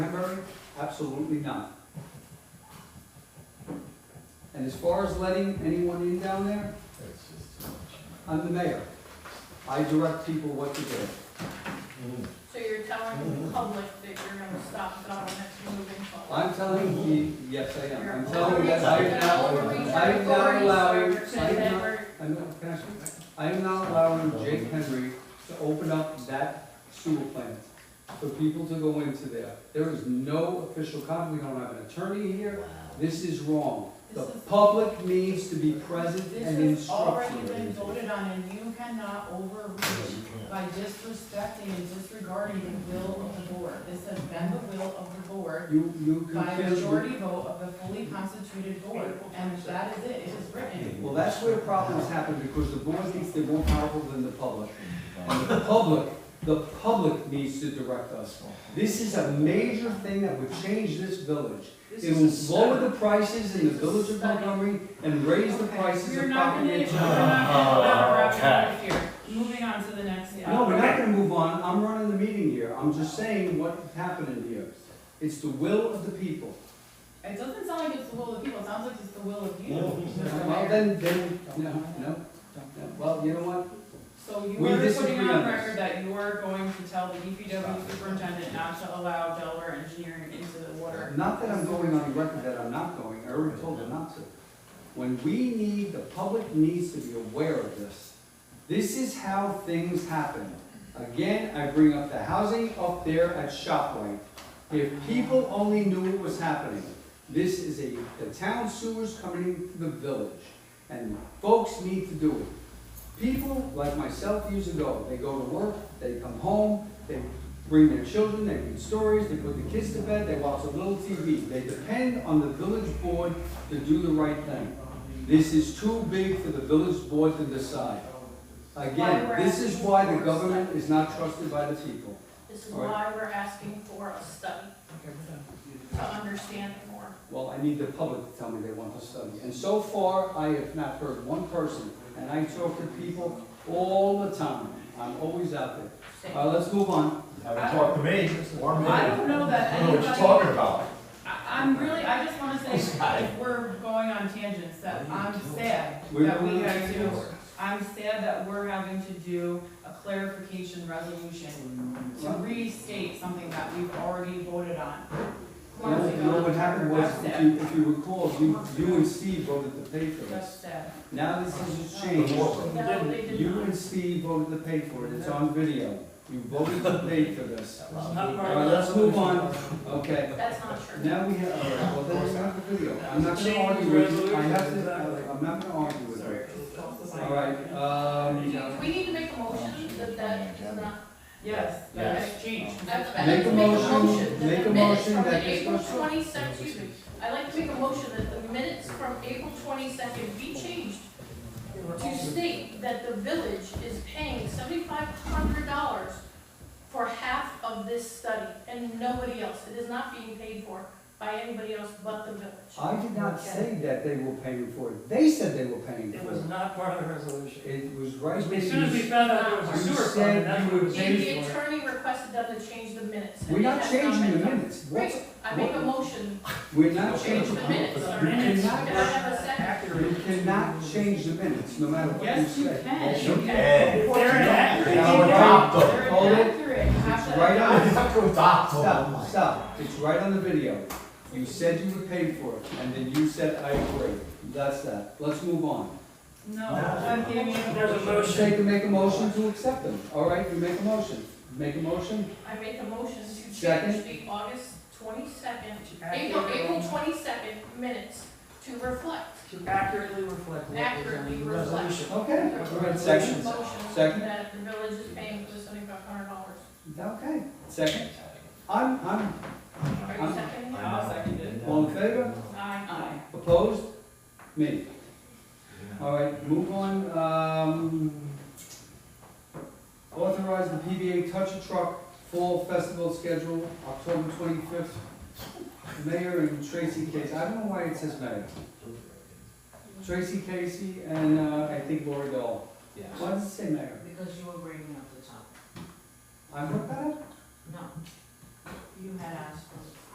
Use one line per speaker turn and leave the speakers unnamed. Absolutely not. And as far as letting anyone in down there,
That's just too much.
I'm the mayor. I direct people what to do.
So you're telling the public that you're gonna stop government from moving forward?
I'm telling you, yes, I am. I'm telling you that I
You're
am not,
overreaching
I am not
authority, so
allowing,
you're
I
saying
am
that
not,
we're-
I'm not, can I speak? I am not allowing Jake Henry to open up that sewer plant for people to go into there. There is no official comment, we don't have an attorney here. This is wrong. The
This is-
public needs to be present
This
and
has already
instructed.
been voted on and you cannot overreach by disrespecting and disregarding the will of the board. This has been the will of the board
You, you
by a
can,
majority vote of the fully constituted board. And that is it, it is written.
well, that's where problems happen, because the board thinks they're more powerful than the public. And the public, the public needs to direct us. This is a major thing that would change this village. It will lower the prices in the village of Montgomery and raise the
Okay,
prices
We're
of
not gonna,
property.
we're not gonna wrap it up here. Moving on to the next.
No, we're not gonna move on, I'm running the meeting here, I'm just saying what's happening here. It's the will of the people.
It doesn't sound like it's the will of the people, it sounds like it's the will of you. Mr.
Well,
Mayor.
then, then, no, no, no. well, you know what?
So you
We
are
disagree
putting
on
on
this.
record that you are going to tell the DPW superintendent not to allow Delaware engineering into the water.
Not that I'm going on record that I'm not going, I already told them not to. When we need, the public needs to be aware of this. This is how things happen. Again, I bring up the housing up there at Shopway. If people only knew it was happening, this is a, the town sewers coming into the village, and folks need to do it. People like myself years ago, they go to work, they come home, they bring their children, they read stories, they put the kids to bed, they watch a little TV. They depend on the village board to do the right thing. This is too big for the village board to decide. Again, this is why the government is not trusted by the people.
This is
All right.
why we're asking for a study, to understand more.
Well, I need the public to tell me they want to study. And so far, I have not heard one person, and I talk to people all the time. I'm always out there. All right, let's move on.
Haven't talked to me or me.
I don't know that
I don't know what you're
anybody-
talking about.
I, I'm really, I just wanna say, if we're going on tangents, that I'm sad
We're
that we
going on
have to,
tangents.
I'm sad that we're having to do a clarification resolution to restate something that we've already voted on. months
No, no,
ago.
what happened was,
That's
if
sad.
you, if you recall, you, you and Steve voted to pay for
That's
this.
sad.
Now this has just
The
changed.
war.
No, they did
You
not.
and Steve voted to pay for it. It's on video. You voted to pay for this.
Not
All
part
right,
of
let's move on. Okay.
That's not true.
Now we have, all right, well, then it's not the video. I'm not gonna argue with you. I have to, I'm not gonna argue with you. All right, um,
We need to make a motion that that is not.
Yes, that has changed.
I'd like
Make
to
a motion,
that the
make a
minutes
motion
from the
that this
April
goes-
22nd excuse me, I'd like to make a motion that the minutes from April twenty-second be changed to state that the village is paying seventy-five hundred dollars for half of this study and nobody else. It is not being paid for by anybody else but the village.
I did not say that they were paying for it. They said they were paying
It
for
was
it.
not part of the resolution.
It was right there.
As soon as we
You-
found out it was a
You
sewer
said
fund, that's
you
what we
would-
And the
paid for. it.
attorney requested them to change the minutes. and
We're not
it has been
changing the
done.
minutes. What?
Great, I make a motion
We're not
to change
changing
the
the
minutes.
minutes.
sir.
You
Minutes
cannot-
Can I have a second?
You
Accurate.
cannot change the minutes, no matter what you
Yes, you
say.
can.
Yes, you can.
They're inaccurate.
Now adopt them.
They're
Hold it.
inaccurate.
It's
Half that-
right
I
on,
have to adopt them.
stop, stop, it's right on the video. You said you would pay for it, and then you said, I agree. That's that, let's move on.
No, I'm giving you
There's a
Take
motion.
and make a motion to accept them, all right, you make a motion. Make a motion,
I make a motion to
Second.
change the August twenty-second, April, April twenty-second minutes to reflect.
To accurately reflect. what was
Accurately
in the
reflect.
Resolution.
okay, all right, second,
Motion
Second.
that the village is paying for the seventy-five hundred dollars.
okay, second. I'm, I'm,
Are you seconding? it?
I'll second it.
all in favor,
Aye.
Aye.
opposed, me. All right, move on, um, authorize the PBA Touch a Truck Fall Festival schedule, October twenty-fifth. Mayor and Tracy Casey, I don't know why it says mayor. Tracy Casey and, uh, I think Lori Dole. Why does it say mayor?
Because you were bringing up the topic.
I wrote that?
No. You had asked for